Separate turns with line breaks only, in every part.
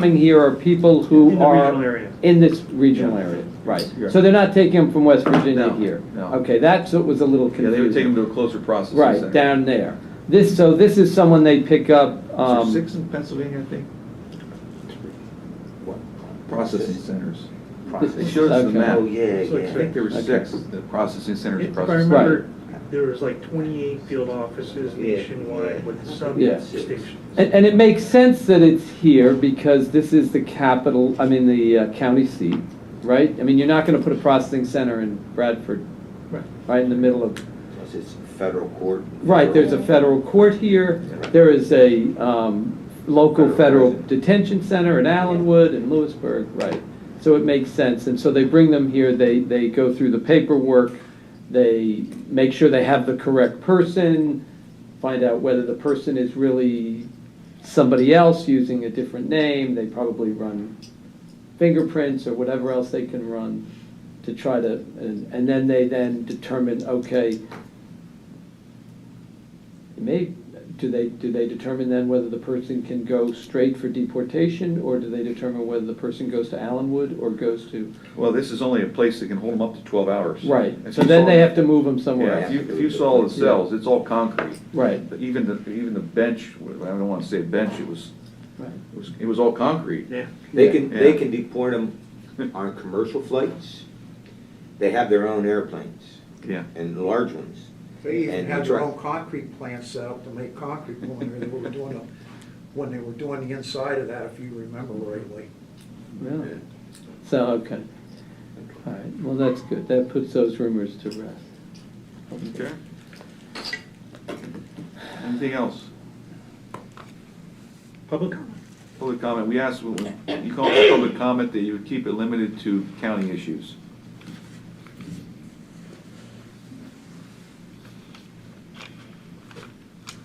coming here are people who
In the
are.
regional area.
in this regional area, right.
Yeah.
So they're not taking them from West Virginia
No,
here?
no.
Okay, that's what was a little
Yeah,
confusing.
they would take them to a closer processing center.
Right, down there. This, so this is someone they pick up,
Is there
um,
Six in Pennsylvania, I think. Processing centers. They showed us the
Okay.
map.
Oh, yeah,
So
I think there were
Okay.
six, the processing centers.
If I
processing-
remember, there was like 28 field offices
Yeah,
nationwide
yeah.
with
Yeah.
substations.
and, and it makes sense that it's here because this is the capital, I mean, the uh, county seat, right? I mean, you're not gonna put a processing center in Bradford,
Right.
right in the middle of,
Plus it's federal court.
right, there's a federal court here, there is a, um, local
Federal
federal
prison.
detention center in Allenwood and Lewisburg, right? So it makes sense, and so they bring them here, they, they go through the paperwork, they make sure they have the correct person, find out whether the person is really somebody else using a different name, they probably run fingerprints or whatever else they can run to try to, and, and then they then determine, okay, it May, do they, do they determine then whether the person can go straight for deportation, or do they determine whether the person goes to Allenwood or goes to?
Well, this is only a place that can hold them up to twelve hours.
Right,
If
so
you
then
saw-
they have to move them somewhere
Yeah,
else.
if you, if you saw the cells, it's all concrete.
Right,
But Even the, even the bench, I don't wanna say bench, it was,
right.
it was, it was all concrete.
Yeah.
They can, they
Yeah.
can deport them on commercial flights. They have their own airplanes
Yeah.
and large ones.
They even
And
had
the
their
truck.
own concrete plant set up to make concrete when they were doing the, when they were doing the inside of that, if you remember rightly.
Really? So, okay. All right, well, that's good. That puts those rumors to rest.
Okay. Anything else?
Public comment.
Public comment, we asked, when you call it public comment, that you would keep it limited to county issues.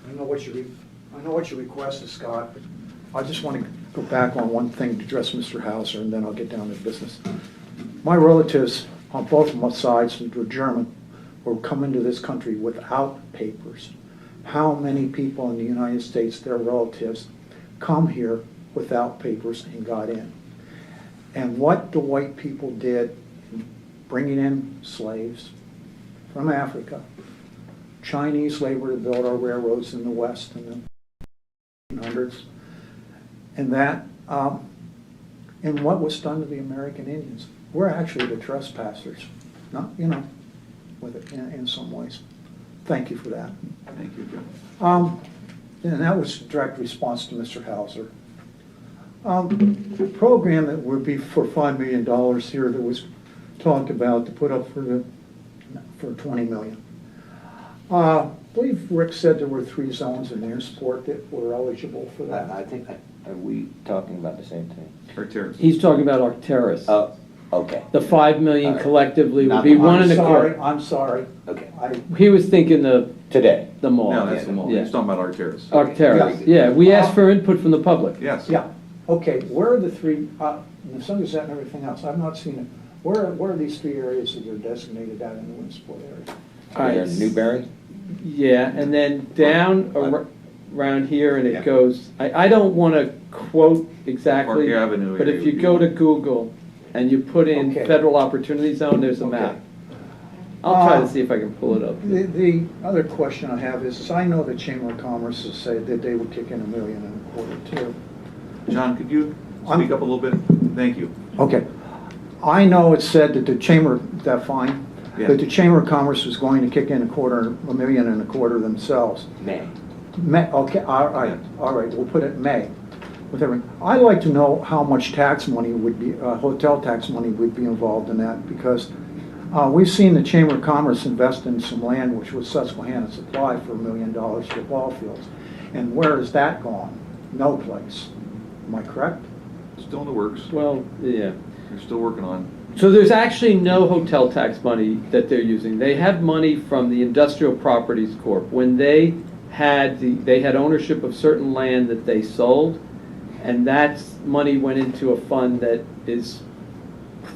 I know what your, re- I know what your request is, Scott, but I just want to go back on one thing to address Mr. Hauser, and then I'll get down to business. My relatives on both of my sides who were German were coming to this country without papers. How many people in the United States, their relatives, come here without papers and got in? And what the white people did, in bringing in slaves from Africa, Chinese labor to build our railroads in the West in the 1800s. And that, um, and what was done to the American Indians. We're actually the trespassers, not, you know, with it, in, in some ways. Thank you for that.
Thank you, Joe.
Um, and that was a direct response to Mr. Hauser. Um, the program that would be for five million dollars here that was talked about to put up for the, for twenty million. Uh, I believe Rick said there were three zones in Amesport that were eligible for
I, I
that.
think, are we talking about the same thing?
Or Terrence.
He's talking about Arcturus.
Oh, okay,
The five million
All right.
collectively would
Not
be
the-
one
I'm
and a
sorry,
quarter.
I'm sorry.
okay,
I,
He was thinking the,
today.
the mall.
No, that's the mall,
Yeah. Oh,
he's talking about our terrace.
Arcturus,
Yeah.
yeah. We asked for input from the public.
Yes.
yeah, okay, where are the three, uh, the Sunset and everything else, I've not seen it. Where, where are these three areas that are designated out in the Williamsport area?
All right.
We're in Newberry?
Yeah, and then down ar- around here and
Yeah.
it goes, I, I don't wanna quote exactly.
Park Avenue
But
area
if you
would
go
be-
to Google and you put in
Okay.
federal opportunity zone, there's a
Okay.
map. I'll try
Uh,
to see if I can pull it up.
The, the other question I have is, is I know the Chamber of Commerce has said that they would kick in a million and a quarter too.
John, could you
I'm-
speak up a little bit? Thank you.
Okay. I know it said that the Chamber, that fine,
Yeah.
that the Chamber of Commerce was going to kick in a quarter, a million and a quarter themselves.
May.
May, okay, all right, all right, we'll put it May. with everything. I'd like to know how much tax money would be, uh, hotel tax money would be involved in that, because uh, we've seen the Chamber of Commerce invest in some land, which was Susquehanna Supply, for a million dollars for ball fields. And where has that gone? No place. Am I correct?
Still in the works,
Well, yeah.
we're still working on,
So there's actually no hotel tax money that they're using. They have money from the Industrial Properties Corp. When they had the, they had ownership of certain land that they sold, and that's, money went into a fund that is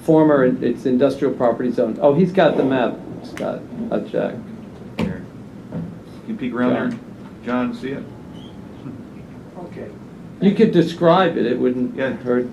former, it's industrial property zone. Oh, he's got the map, Scott, I'll check.
here. Can you peek around there? John, see it?
Okay.
You could describe it, it wouldn't
Yeah.
hurt.